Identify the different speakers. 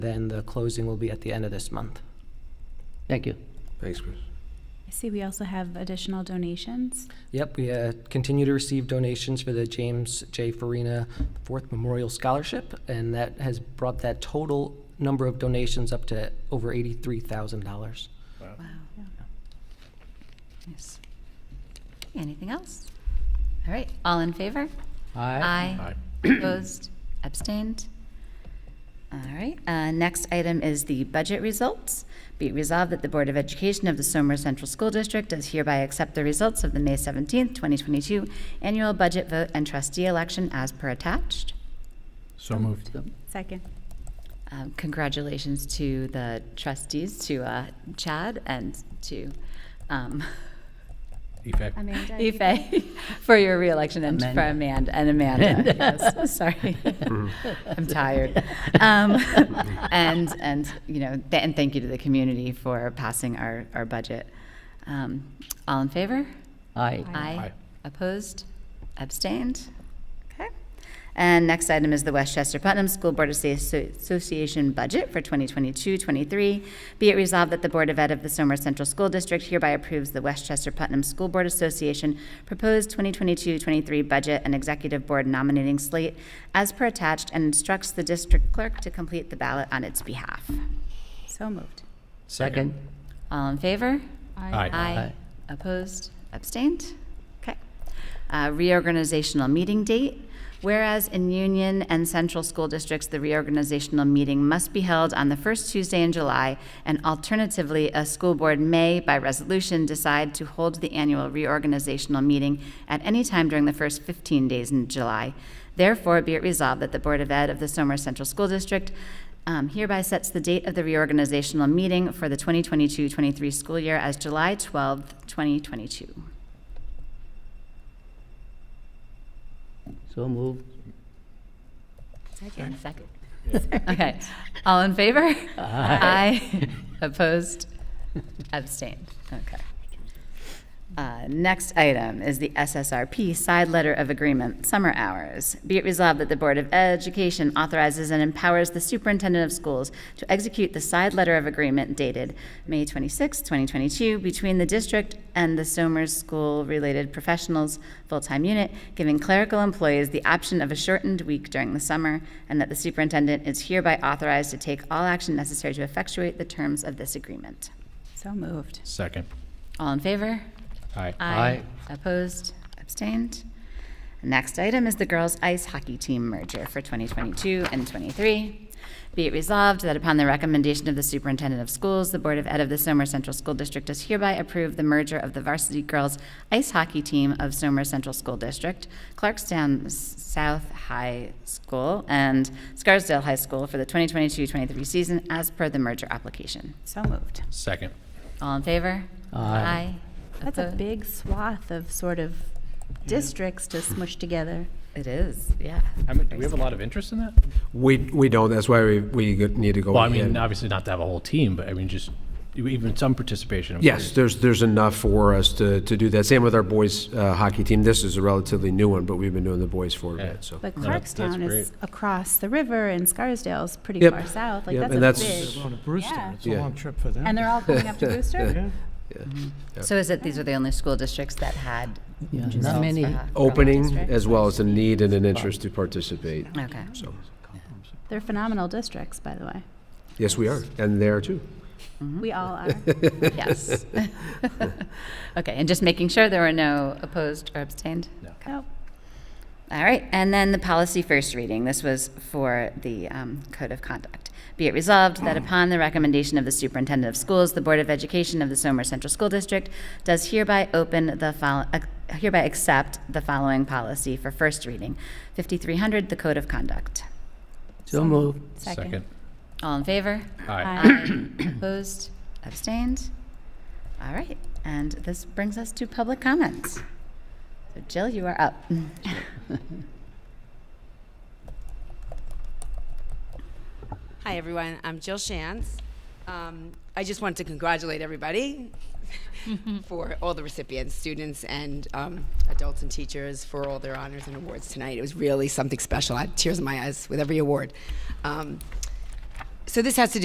Speaker 1: Then the closing will be at the end of this month.
Speaker 2: Thank you.
Speaker 3: Thanks, Chris.
Speaker 4: I see we also have additional donations.
Speaker 1: Yep, we uh, continue to receive donations for the James J. Farina Fourth Memorial Scholarship, and that has brought that total number of donations up to over $83,000.
Speaker 4: Wow.
Speaker 5: Yes. Anything else? All right, all in favor? Aye. Opposed? Abstained? All right, uh, next item is the budget results. Be it resolved that the Board of Education of the Somer Central School District does hereby accept the results of the May 17th, 2022 annual budget vote and trustee election as per attached.
Speaker 6: So moved.
Speaker 4: Second.
Speaker 5: Um, Congratulations to the trustees, to uh, Chad and to um,
Speaker 6: Effect.
Speaker 4: Amanda?
Speaker 5: Ife, for your reelection and for Amanda, and Amanda, yes, sorry. I'm tired. Um, And, and, you know, th- and thank you to the community for passing our, our budget. Um, All in favor?
Speaker 2: Aye.
Speaker 5: Aye.
Speaker 6: Aye.
Speaker 5: Opposed? Abstained? Okay. And next item is the Westchester Putnam School Board Associ- Association budget for 2022-23. Be it resolved that the Board of Ed of the Somer Central School District hereby approves the Westchester Putnam School Board Association proposed 2022-23 budget and executive board nominating slate as per attached and instructs the district clerk to complete the ballot on its behalf.
Speaker 4: So moved.
Speaker 2: Second.
Speaker 5: All in favor?
Speaker 6: Aye.
Speaker 2: Aye.
Speaker 5: Opposed? Abstained? Okay. Uh, Reorganizational meeting date. Whereas in Union and Central School Districts, the reorganizational meeting must be held on the first Tuesday in July, and alternatively, a school board may, by resolution, decide to hold the annual reorganizational meeting at any time during the first 15 days in July. Therefore, be it resolved that the Board of Ed of the Somer Central School District um, hereby sets the date of the reorganizational meeting for the 2022-23 school year as July 12th, 2022.
Speaker 2: So moved.
Speaker 5: Second. Okay. All in favor? Aye. Opposed? Abstained. Okay. Uh, Next item is the SSRP Side Letter of Agreement, Summer Hours. Be it resolved that the Board of Education authorizes and empowers the superintendent of schools to execute the side letter of agreement dated May 26, 2022, between the district and the Somers School-related professionals full-time unit, giving clerical employees the option of a shortened week during the summer, and that the superintendent is hereby authorized to take all action necessary to effectuate the terms of this agreement.
Speaker 4: So moved.
Speaker 6: Second.
Speaker 5: All in favor?
Speaker 6: Aye.
Speaker 2: Aye.
Speaker 5: Opposed? Abstained? Next item is the girls' ice hockey team merger for 2022 and '23. Be it resolved that upon the recommendation of the superintendent of schools, the Board of Ed of the Somer Central School District does hereby approve the merger of the varsity girls' ice hockey team of Somer Central School District, Clarkstown S- South High School, and Scarsdale High School for the 2022-23 season as per the merger application.
Speaker 4: So moved.
Speaker 6: Second.
Speaker 5: All in favor?
Speaker 2: Aye.
Speaker 4: That's a
Speaker 5: Oppo-
Speaker 4: big swath of sort of districts to smush together.
Speaker 5: It is, yeah.
Speaker 6: How many- Do we have a lot of interest in that?
Speaker 3: We, we don't, that's why we, we go- need to go.
Speaker 6: Well, I mean, uh,
Speaker 3: in.
Speaker 6: obviously not to have a whole team, but I mean, just even some participation. I'm
Speaker 3: Yes,
Speaker 6: curious.
Speaker 3: there's, there's enough for us to, to do that. Same with our boys uh, hockey team. This is a relatively new one, but we've been doing the boys for a
Speaker 6: Yeah.
Speaker 3: bit, so.
Speaker 4: But
Speaker 6: No, that's- that's
Speaker 4: Clarkstown is across the river and Scarsdale's pretty
Speaker 3: Yep.
Speaker 4: far south. Like,
Speaker 3: Yep,
Speaker 4: that's
Speaker 3: and
Speaker 4: a
Speaker 3: that's-
Speaker 4: big.
Speaker 7: On to Brewster,
Speaker 4: Yeah.
Speaker 7: it's a
Speaker 3: Yeah.
Speaker 7: long trip for them.
Speaker 4: And they're all going up to Brewster?
Speaker 7: Yeah.
Speaker 5: So is it, these are the only school districts that had?
Speaker 2: Yeah,
Speaker 5: results
Speaker 2: Not
Speaker 5: for
Speaker 2: many.
Speaker 5: ho- for
Speaker 3: Opening
Speaker 5: district?
Speaker 3: as well as a need and an interest to participate,
Speaker 5: Okay.
Speaker 3: so.
Speaker 4: They're phenomenal districts, by the way.
Speaker 3: Yes, we are, and there too.
Speaker 4: We all are.
Speaker 5: Yes. Okay, and just making sure there were no opposed or abstained?
Speaker 4: Oh,
Speaker 5: All right, and then the policy first reading. This was for the um, Code of Conduct. Be it resolved that upon the recommendation of the Superintendent of Schools, the Board of Education of the Somer Central School District does hereby open the, fol- ac- hereby accept the following policy for first reading. 5300, the Code of Conduct.
Speaker 2: So moved.
Speaker 4: second.
Speaker 5: All in favor?
Speaker 6: Aye.
Speaker 5: Aye. Opposed? Abstained? All right, and this brings us to public comments. So Jill, you are up.
Speaker 8: Hi, everyone. I'm Jill Shands. Um, I just want to congratulate everybody for all the recipients, students and um, adults and teachers, for all their honors and awards tonight. It was really something special. I had tears in my eyes with every award. Um, So this has to do